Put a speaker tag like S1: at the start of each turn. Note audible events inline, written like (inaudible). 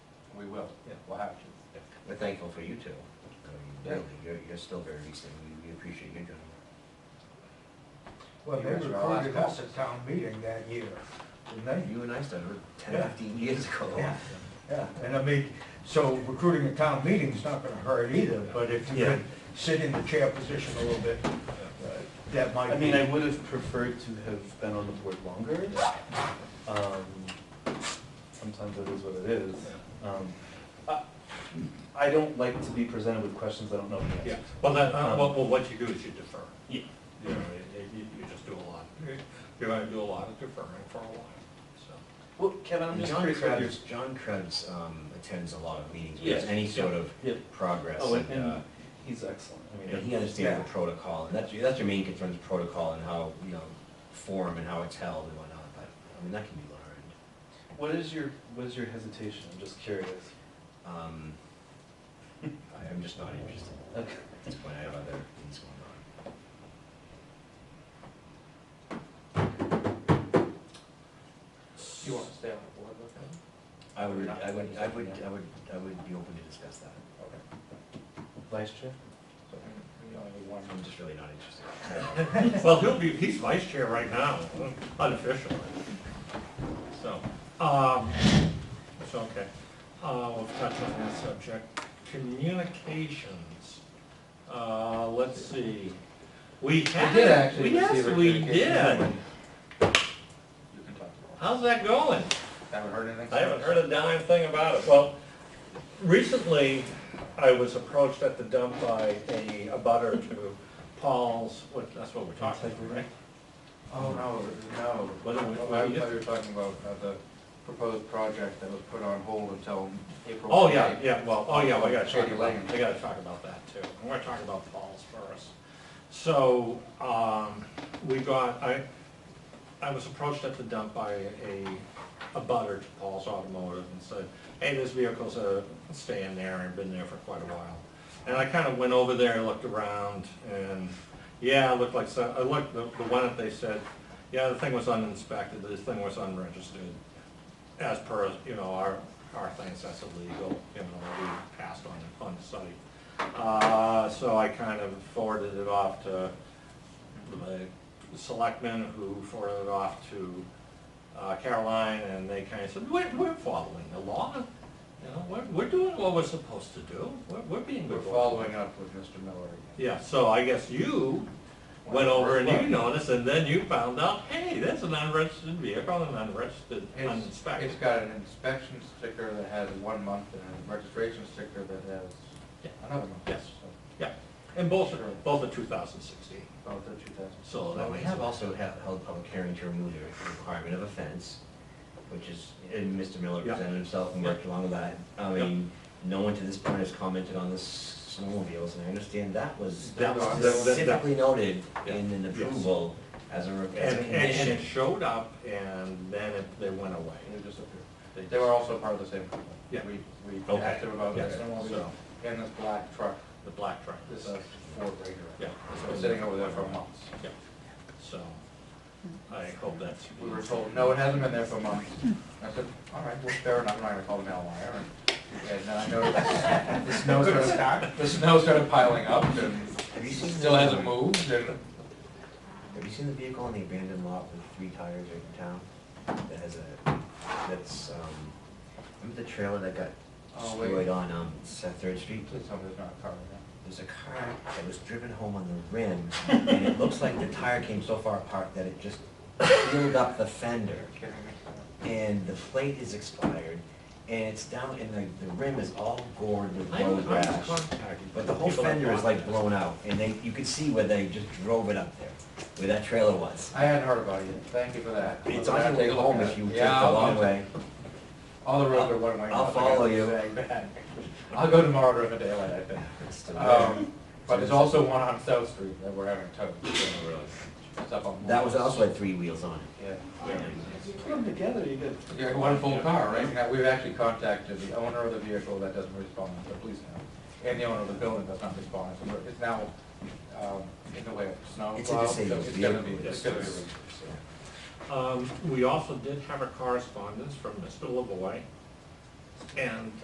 S1: will.
S2: Yeah.
S1: We'll have to.
S3: We're thankful for you two. I mean,
S1: Yeah.
S3: Really, you're, you're still very recent, we, we appreciate you doing it.
S2: Well, they
S1: Here's our last
S2: recruited us at town meeting that year, didn't they?
S3: You and I started ten,
S2: Yeah.
S3: fifteen years ago.
S2: Yeah, yeah, and I mean, so recruiting at town meeting's not gonna hurt either, but if you
S4: Yeah.
S2: could sit in the chair position a little bit, uh, that might be.
S4: I mean, I would have preferred to have been on the board longer. Um, Sometimes it is what it is. Um, I- I don't like to be presented with questions I don't know the answer
S1: Yeah,
S4: to.
S1: well, that, uh, well, well, what you do is you defer.
S4: Yeah.
S1: You know, you, you- you just do a lot, you're gonna do a lot of deferring for a while, so.
S4: Well, Kevin, I'm just
S3: John
S4: curious about your.
S3: Krebs, John Krebs, um, attends a lot of meetings, where there's
S1: Yes,
S3: any
S1: yeah,
S3: sort of
S4: yeah.
S3: progress
S4: Oh, and,
S3: and, uh,
S4: and he's excellent. I mean,
S3: and he understands the protocol, and that's, your- that's your main concern, is protocol and how, you know, form and how it's held and whatnot, but, I mean, that can be learned.
S4: What is your, what is your hesitation? I'm just curious.
S3: Um, I- I'm just not interested
S4: Okay.
S3: at this point, I have other things going
S1: You wanna stay on the board with them?
S3: on. I would, I would, I would, I would, I would be open to discuss that.
S4: Vice chair?
S3: I'm just really not
S1: (laughs)
S3: interested.
S1: Well, he'll be, he's vice chair right now, unofficially. So, um, it's okay. Uh, we'll touch on that subject. Communications, uh, let's see. We had. Yes, we did.
S5: You can talk to
S1: How's that going?
S5: them. Haven't heard anything?
S1: I haven't heard a dime thing about it. Well, recently, I was approached at the dump by a, a butter to Paul's, what, that's what we're talking about, right?
S5: Oh, no,
S1: What are we-
S5: no.
S1: what are
S5: I
S1: you-
S5: thought you were talking about uh, the proposed project that was put on hold until April.
S1: Oh, yeah,
S5: 28th.
S1: yeah, well, oh, yeah, we gotta talk
S5: Shady
S1: about,
S5: Lane.
S1: we gotta talk about that too. And we're talking about Paul's first. So, um, we got, I, I was approached at the dump by a, a butter to Paul's Automotive and said, hey, this vehicle's uh, staying there and been there for quite a while. And I kind of went over there, looked around, and, yeah, it looked like, so- I looked, the the one that they said, yeah, the thing was uninspected, the thing was unregistered. As per, you know, our, our things, that's illegal, you know, we passed on, on the site. Uh, So I kind of forwarded it off to the selectmen who forwarded it off to uh, Caroline, and they kind of said, we're, we're following the law. You know, we're, we're doing what we're supposed to do. We're, we're being
S5: We're
S1: good.
S5: following up with Mr. Miller. again.
S1: Yeah, so I guess you went over and you noticed, and then you found out, hey, that's an unregistered vehicle, an unregistered,
S5: It's-
S1: uninspected.
S5: It's got an inspection sticker that has one month and a registration sticker that
S1: Yeah.
S5: has another month.
S1: Yes.
S5: So,
S1: Yeah, and both are, both are two thousand sixteen,
S5: About the two thousand.
S1: so
S3: Well,
S1: that
S3: we
S1: makes.
S3: have also ha- held public hearing to remove the requirement of a fence, which is, and Mr. Miller
S1: Yeah.
S3: presented himself and worked along with that. I
S1: Yeah.
S3: mean, no one to this point has commented on the s- snowmobiles, and I understand that was
S1: That was- that- that- that-
S3: specifically noted
S1: Yeah.
S3: in an
S1: Yes.
S3: approval as a, re- as
S1: And,
S3: a
S1: and- and
S3: condition.
S1: it showed up, and then it, they went away.
S5: They disappeared.
S1: They-
S5: They were also part of the same company.
S1: Yeah.
S5: We, we
S1: Okay.
S5: asked them about
S1: Yeah.
S5: this snowmobile
S1: So-
S5: and this black truck,
S1: The black truck.
S5: this uh, Ford Ranger.
S1: Yeah.
S5: It's been sitting over there for months.
S1: Yeah, so, I hope that's.
S5: We were told, no, it hasn't been there for months. I said, all right, well, fair enough, I'm not gonna call the mail liar. And then I noticed
S2: (laughs)
S5: the snow started, the snow started piling up and
S3: Have you
S5: it
S3: seen
S5: still
S3: the-
S5: hasn't moved and.
S3: Have you seen the vehicle on the abandoned lot with three tires right in town? That has a, that's, um, remember the trailer that got
S5: Oh, wait.
S3: destroyed on, um, Seth Third Street?
S5: Please tell me there's not a car in
S3: There's a car that was driven home on the rim, and it looks like the tire came so far apart that it just peeled up the fender,
S5: there. Kidding me?
S3: and the plate is expired, and it's down, and the, the rim is all gored with
S1: I was
S3: road
S1: I was
S3: rash.
S1: contacted
S3: But the whole
S1: people that
S3: fender is
S1: bought
S3: like
S1: this.
S3: blown out, and they, you could see where they just drove it up there, where that trailer was.
S5: I hadn't heard about it. Thank you for that.
S3: It's
S5: I'll
S3: on your
S5: take
S3: way
S5: a look
S3: home
S5: at
S3: if
S5: it.
S3: you take the
S5: Yeah, I'll-
S3: long
S5: I'll-
S3: way.
S5: All the roads are one way.
S3: I'll
S5: now, so I
S3: follow
S5: gotta
S3: you.
S5: say that. I'll go tomorrow during the daylight, I think.
S3: It's still there.
S5: Um, but there's also one on South Street that we're having towed. That's up on.
S3: That was
S5: Lawrence.
S3: also had three wheels on it.
S5: Yeah.
S4: Put them together, you get.
S5: Yeah, one full car, right? Now, we've actually contacted the owner of the vehicle that doesn't respond, the police now, and the owner of the building that's not responding. So we're- It's now, um, in the way of snow.
S3: It's a
S5: plow, so
S3: disabled
S5: It's gonna be,
S3: vehicle.
S5: it's gonna be.
S3: Yes.
S1: Um, we also did have a correspondence from Mr. Lavoy, and